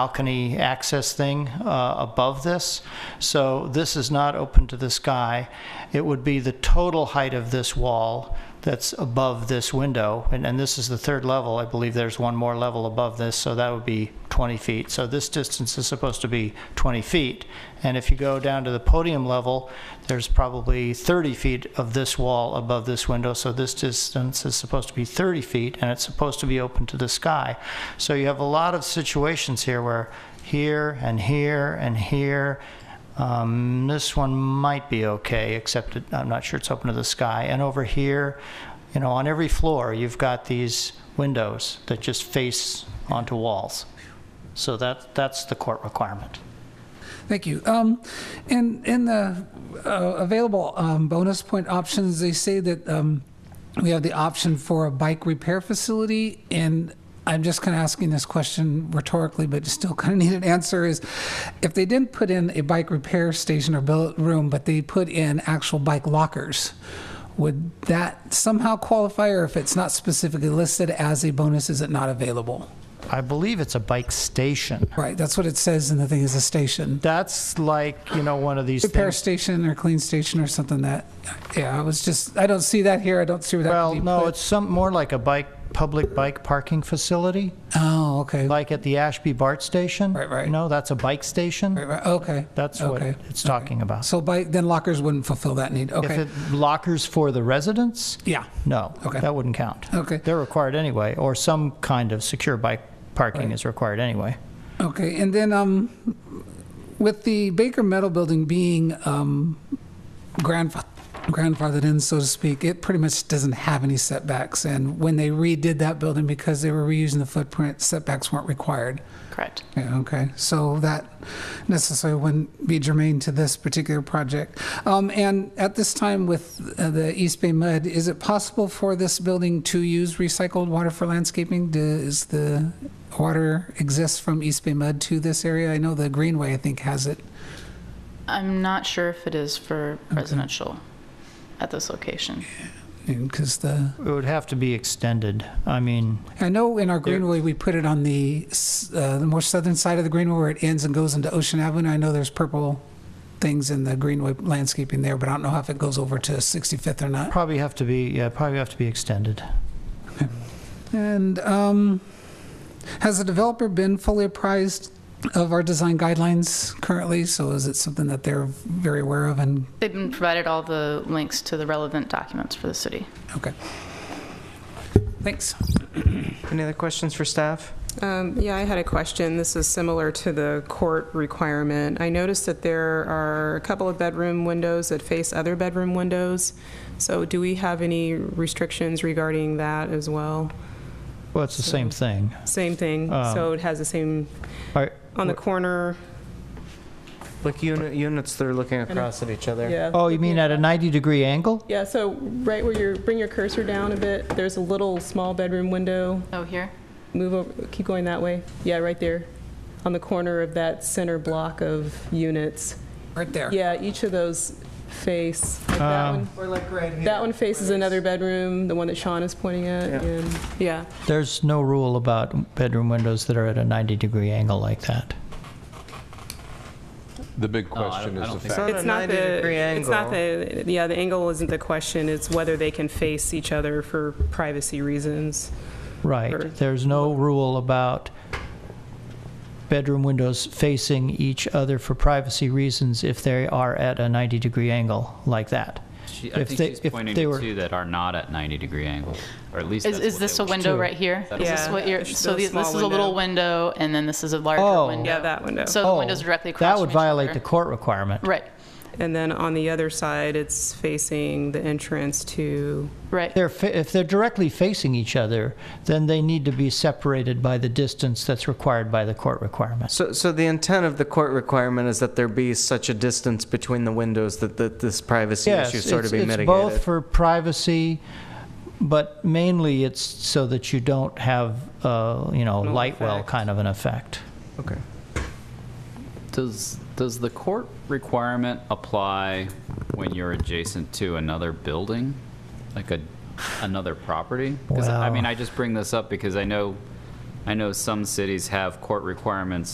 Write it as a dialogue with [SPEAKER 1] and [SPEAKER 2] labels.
[SPEAKER 1] balcony access thing uh, above this. So this is not open to the sky. It would be the total height of this wall that's above this window. And, and this is the third level. I believe there's one more level above this, so that would be 20 feet. So this distance is supposed to be 20 feet. And if you go down to the podium level, there's probably 30 feet of this wall above this window. So this distance is supposed to be 30 feet, and it's supposed to be open to the sky. So you have a lot of situations here where here and here and here um, this one might be okay, except it, I'm not sure it's open to the sky. And over here, you know, on every floor, you've got these windows that just face onto walls. So that, that's the court requirement.
[SPEAKER 2] Thank you. Um, in in the uh, available um, bonus point options, they say that um, we have the option for a bike repair facility, and I'm just kind of asking this question rhetorically, but still kind of need an answer. Is if they didn't put in a bike repair station or billet room, but they put in actual bike lockers, would that somehow qualify, or if it's not specifically listed as a bonus, is it not available?
[SPEAKER 1] I believe it's a bike station.
[SPEAKER 2] Right. That's what it says in the thing is a station.
[SPEAKER 1] That's like, you know, one of these
[SPEAKER 2] repair
[SPEAKER 1] things.
[SPEAKER 2] station or clean station or something that, yeah, I was just, I don't see that here, I don't see where that
[SPEAKER 1] Well,
[SPEAKER 2] would be
[SPEAKER 1] no,
[SPEAKER 2] put.
[SPEAKER 1] it's some, more like a bike, public bike parking facility,
[SPEAKER 2] Oh, okay, right,
[SPEAKER 1] like at the Ashby BART station.
[SPEAKER 2] Right, right.
[SPEAKER 1] You know, that's a bike station.
[SPEAKER 2] right, okay.
[SPEAKER 1] That's what
[SPEAKER 2] okay.
[SPEAKER 1] it's talking about.
[SPEAKER 2] So by, then lockers wouldn't fulfill that need,
[SPEAKER 1] If
[SPEAKER 2] okay,
[SPEAKER 1] it lockers for the residents,
[SPEAKER 2] yeah,
[SPEAKER 1] no.
[SPEAKER 2] Okay.
[SPEAKER 1] That wouldn't count.
[SPEAKER 2] Okay.
[SPEAKER 1] They're required anyway, or some kind of secure bike parking is required anyway.
[SPEAKER 2] okay, and then, um, with the Baker Metal Building being, um, grandfa- grandfathered in, so to speak, it pretty much doesn't have any setbacks, and when they redid that building, because they were reusing the footprint, setbacks weren't required.
[SPEAKER 3] Correct.
[SPEAKER 2] Yeah, okay, so that necessarily wouldn't be germane to this particular project. Um, and at this time with uh, the East Bay Mud, is it possible for this building to use recycled water for landscaping? Do- Is the water exist from East Bay Mud to this area? I know the Greenway, I think, has it.
[SPEAKER 3] I'm not sure if it is for residential at this location.
[SPEAKER 2] Because the,
[SPEAKER 1] It would have to be extended. I mean,
[SPEAKER 2] I know in our Greenway, we put it on the, s- uh, the more southern side of the Greenway where it ends and goes into Ocean Avenue. I know there's purple things in the Greenway landscaping there, but I don't know if it goes over to 65th or not.
[SPEAKER 1] probably have to be, yeah, probably have to be extended.
[SPEAKER 2] And um, has the developer been fully apprised of our design guidelines currently? So is it something that they're very aware of and,
[SPEAKER 3] They've been provided all the links to the relevant documents for the city.
[SPEAKER 2] okay. Thanks.
[SPEAKER 4] Any other questions for staff?
[SPEAKER 5] Um, Yeah, I had a question. This is similar to the court requirement. I noticed that there are a couple of bedroom windows that face other bedroom windows. So do we have any restrictions regarding that as well?
[SPEAKER 1] Well, it's the same thing.
[SPEAKER 5] Same thing,
[SPEAKER 1] Um,
[SPEAKER 5] so it has the same,
[SPEAKER 1] All right.
[SPEAKER 5] on the corner,
[SPEAKER 4] Like unit, units that are looking across at each other.
[SPEAKER 5] yeah.
[SPEAKER 1] Oh, you mean at a 90-degree angle?
[SPEAKER 5] Yeah, so right where you bring your cursor down a bit, there's a little small bedroom window.
[SPEAKER 3] Oh, here?
[SPEAKER 5] Move over, keep going that way. Yeah, right there, on the corner of that center block of units.
[SPEAKER 2] Right there.
[SPEAKER 5] Yeah, each of those face, like that one,
[SPEAKER 4] Or like right here.
[SPEAKER 5] that one faces another bedroom, the one that Sean is pointing at,
[SPEAKER 4] Yeah.
[SPEAKER 5] and, yeah.
[SPEAKER 1] There's no rule about bedroom windows that are at a 90-degree angle like that.
[SPEAKER 6] The big question is the
[SPEAKER 4] so.
[SPEAKER 6] fact.
[SPEAKER 4] Not a 90 degree
[SPEAKER 5] It's not
[SPEAKER 4] angle.
[SPEAKER 5] the, yeah, the angle isn't the question, it's whether they can face each other for privacy reasons. Or-
[SPEAKER 1] Right. There's no rule about bedroom windows facing each other for privacy reasons if they are at a 90-degree angle like that.
[SPEAKER 7] She, I
[SPEAKER 1] If
[SPEAKER 7] think
[SPEAKER 1] they- if
[SPEAKER 7] she's pointing
[SPEAKER 1] they
[SPEAKER 7] to
[SPEAKER 1] were-
[SPEAKER 7] two that are not at 90 degree angle, or at least
[SPEAKER 3] Is,
[SPEAKER 7] that's
[SPEAKER 3] is
[SPEAKER 7] what
[SPEAKER 3] this
[SPEAKER 7] they
[SPEAKER 3] a
[SPEAKER 7] were-
[SPEAKER 3] window right here? Is this
[SPEAKER 5] Yeah.
[SPEAKER 3] what you're,
[SPEAKER 5] It's
[SPEAKER 3] so
[SPEAKER 5] a
[SPEAKER 3] these- this is
[SPEAKER 5] small
[SPEAKER 3] a little window and then this is a
[SPEAKER 1] Oh.
[SPEAKER 3] larger window?
[SPEAKER 5] Yeah, that window.
[SPEAKER 3] So Oh, the window's directly across
[SPEAKER 1] That
[SPEAKER 3] from
[SPEAKER 1] would
[SPEAKER 3] each
[SPEAKER 1] violate
[SPEAKER 3] other.
[SPEAKER 1] the court requirement.
[SPEAKER 3] Right,
[SPEAKER 5] And then on the other side, it's facing the entrance to,
[SPEAKER 3] right.
[SPEAKER 1] They're fa- if they're directly facing each other, then they need to be separated by the distance that's required by the court requirement.
[SPEAKER 4] So, so the intent of the court requirement is that there be such a distance between the windows that, that this privacy
[SPEAKER 1] Yes,
[SPEAKER 4] issue sort of
[SPEAKER 1] it's-
[SPEAKER 4] be
[SPEAKER 1] it's
[SPEAKER 4] mitigated.
[SPEAKER 1] both for privacy, but mainly it's so that you don't have, uh, you know,
[SPEAKER 4] No
[SPEAKER 1] light well
[SPEAKER 4] effect.
[SPEAKER 1] kind of an effect.
[SPEAKER 4] Okay.
[SPEAKER 7] Does, does the court requirement apply when you're adjacent to another building? Like a, another property? 'Cause I I
[SPEAKER 1] Wow.
[SPEAKER 7] mean, I just bring this up because I know, I know some cities have court requirements